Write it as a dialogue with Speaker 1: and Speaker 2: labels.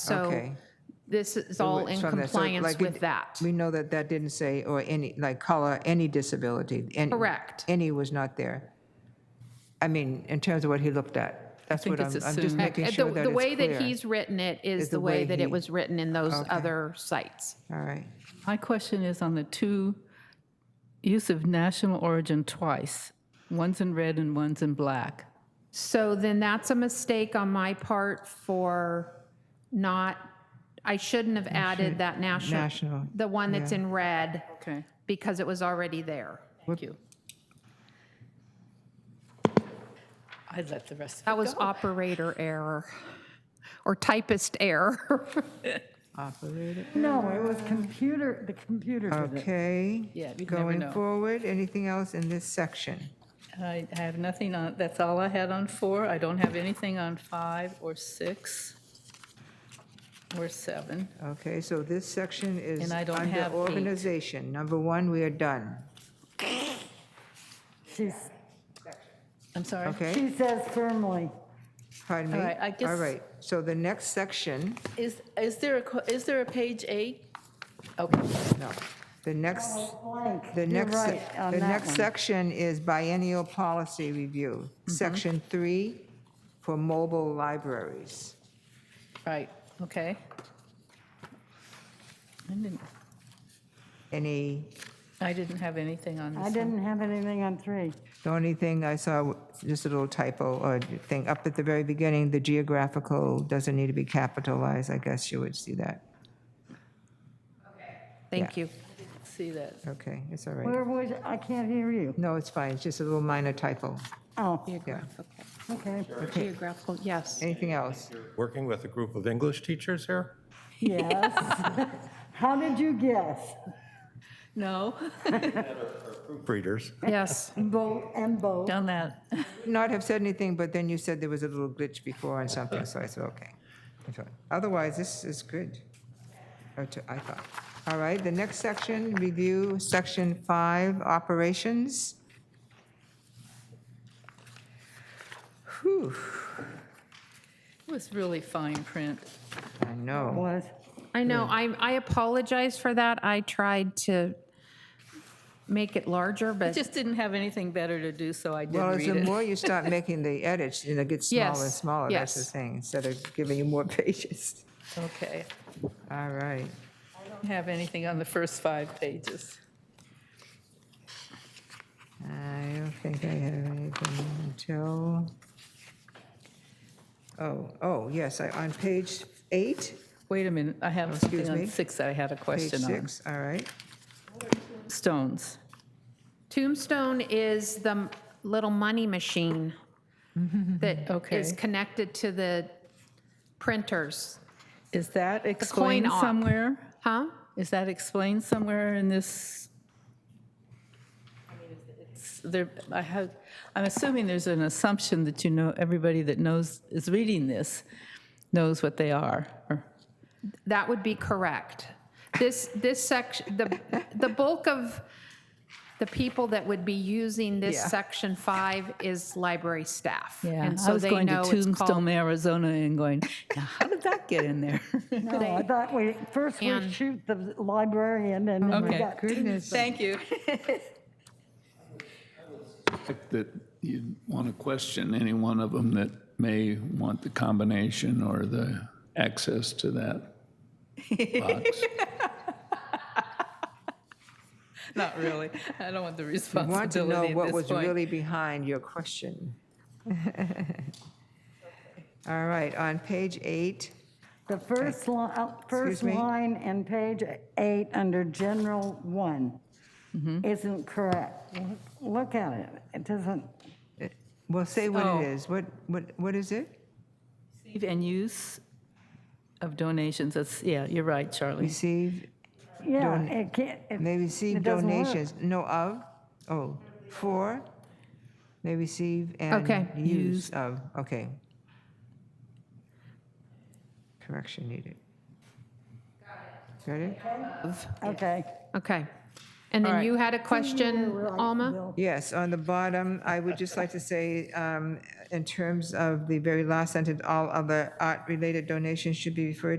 Speaker 1: So
Speaker 2: Okay.
Speaker 1: this is all in
Speaker 2: from that. So,
Speaker 1: compliance
Speaker 2: like, it-
Speaker 1: with that.
Speaker 2: We know that that didn't say, or any, like color, any disability. any-
Speaker 1: Correct.
Speaker 2: Any was not there. I mean, in terms of what he looked at. That's
Speaker 3: think
Speaker 2: what I'm,
Speaker 3: it's
Speaker 2: I'm just
Speaker 3: assumed.
Speaker 2: making
Speaker 1: Uh,
Speaker 2: sure
Speaker 1: The
Speaker 2: that
Speaker 1: the
Speaker 2: it's
Speaker 1: way that
Speaker 2: clear.
Speaker 1: he's written it is the way that it was written in those other sites.
Speaker 2: All right.
Speaker 3: My question is on the two, use of national origin twice. One's in red and one's in black.
Speaker 1: So then that's a mistake on my part for not, I shouldn't have added that national,
Speaker 2: national,
Speaker 1: the one that's in red,
Speaker 3: Okay.
Speaker 1: because it was already there.
Speaker 3: Thank you. I let the rest
Speaker 1: That was operator error, or typist error.
Speaker 3: operated.
Speaker 4: No, Oh, it was computer, the computer did it.
Speaker 2: Okay.
Speaker 3: Yeah, you'd never
Speaker 2: Going
Speaker 3: know.
Speaker 2: forward, anything else in this section?
Speaker 3: I I have nothing on, that's all I had on four. I don't have anything on five or six or seven.
Speaker 2: Okay, so this section is
Speaker 3: And I don't
Speaker 2: under
Speaker 3: have eight.
Speaker 2: organization. Number one, we are done.
Speaker 4: She's-
Speaker 3: I'm sorry.
Speaker 2: Okay?
Speaker 4: She says firmly,
Speaker 2: Pardon me?
Speaker 3: All right, I
Speaker 2: All
Speaker 3: guess-
Speaker 2: right, so the next section,
Speaker 3: Is, is there a, co- is there a page eight? Okay.
Speaker 2: no, the next,
Speaker 4: blank,
Speaker 2: the
Speaker 4: you're
Speaker 2: next,
Speaker 4: right on
Speaker 2: the
Speaker 4: that
Speaker 2: next
Speaker 4: one. Mm-hmm.
Speaker 2: section is biennial policy review. Section three for mobile libraries.
Speaker 3: Right, okay. I didn't,
Speaker 2: Any,
Speaker 3: I didn't have anything on
Speaker 4: I
Speaker 3: this one.
Speaker 4: didn't have anything on three.
Speaker 2: the only thing I saw, just a little typo or thing, up at the very beginning, the geographical doesn't need to be capitalized. I guess you would see that.
Speaker 1: Thank you.
Speaker 3: See that.
Speaker 2: Okay, it's all right.
Speaker 4: Where was, I can't hear you.
Speaker 2: No, it's fine, it's just a little minor typo.
Speaker 4: Oh,
Speaker 2: Yeah.
Speaker 4: okay,
Speaker 1: Geographical, yes.
Speaker 2: Anything else?
Speaker 5: working with a group of English teachers here.
Speaker 4: yes. How did you guess?
Speaker 3: No,
Speaker 5: Breeders.
Speaker 1: Yes.
Speaker 4: Bo and Bo.
Speaker 3: done that.
Speaker 2: not have said anything, but then you said there was a little glitch before on something, so I said, okay. It's all right. Otherwise, this is good, Or to- I thought. All right, the next section, review, section five, operations. Whew,
Speaker 3: It was really fine print.
Speaker 2: I know.
Speaker 4: Was,
Speaker 1: I know, I, I apologize for that. I tried to make it larger,
Speaker 3: I
Speaker 1: but
Speaker 3: just didn't have anything better to do, so I did
Speaker 2: Well, as
Speaker 3: read
Speaker 2: the
Speaker 3: it.
Speaker 2: more you start making the edits, you know, it gets smaller and
Speaker 1: Yes,
Speaker 2: smaller, that's the
Speaker 1: yes.
Speaker 2: thing, instead of giving you more pages.
Speaker 3: Okay.
Speaker 2: All right.
Speaker 3: Don't Have anything on the first five pages.
Speaker 2: I don't think I have anything until, oh, oh, yes, I- on page eight,
Speaker 3: Wait a minute, I have
Speaker 2: excuse me.
Speaker 3: something on six that I had a
Speaker 2: page
Speaker 3: question on.
Speaker 2: six, all right.
Speaker 3: Stones.
Speaker 1: Tombstone is the m- little money machine that is
Speaker 3: Okay.
Speaker 1: connected to the printers,
Speaker 3: Is that explained
Speaker 1: op.
Speaker 3: somewhere?
Speaker 1: huh?
Speaker 3: Is that explained somewhere in this? It's- There, I have, I'm assuming there's an assumption that you know, everybody that knows, is reading this, knows what they are. or-
Speaker 1: That would be correct. This, this section, the, the bulk of the people that would be using this
Speaker 2: Yeah.
Speaker 1: section five is library staff.
Speaker 3: Yeah,
Speaker 1: And
Speaker 3: I
Speaker 1: so
Speaker 3: was
Speaker 1: oh, they
Speaker 3: going to
Speaker 1: know it's
Speaker 3: Tombstone,
Speaker 1: called,
Speaker 3: Arizona, and going, now, how did that get in there?
Speaker 1: Oh
Speaker 4: no, Oh, I thought we, first we
Speaker 1: And-
Speaker 4: shoot the librarian and then we
Speaker 3: Okay,
Speaker 4: got.
Speaker 2: Goodness,
Speaker 3: thank you.
Speaker 6: fact that you'd want to question any one of them that may want the combination or the access to that box.
Speaker 3: Not really, I don't want the
Speaker 2: I want to know
Speaker 3: responsibility at
Speaker 2: what
Speaker 3: this
Speaker 2: was
Speaker 3: point.
Speaker 2: really behind your question. All right, on page eight,
Speaker 4: The first line, first
Speaker 2: me?
Speaker 4: line in page eight, under general one,
Speaker 2: Mm-hmm.
Speaker 4: isn't correct. Look at it, it doesn't,
Speaker 2: well, say what
Speaker 3: Oh.
Speaker 2: it is, what, what, what is it?
Speaker 3: Receive And use of donations, that's, yeah, you're right, Charlie.
Speaker 2: Receive,
Speaker 4: yeah,
Speaker 2: Don-
Speaker 4: it can't. it-
Speaker 2: they receive
Speaker 4: it doesn't work.
Speaker 2: donations, no of, oh, for, they receive
Speaker 1: Okay.
Speaker 2: and use of, okay. Correction needed. Got it?
Speaker 4: Okay.
Speaker 1: okay. And
Speaker 3: All
Speaker 1: then
Speaker 3: right.
Speaker 1: you had a question, Alma?
Speaker 2: Yes, on the bottom, I would just like to say, um, in terms of the very last sentence, all other art-related donations should be referred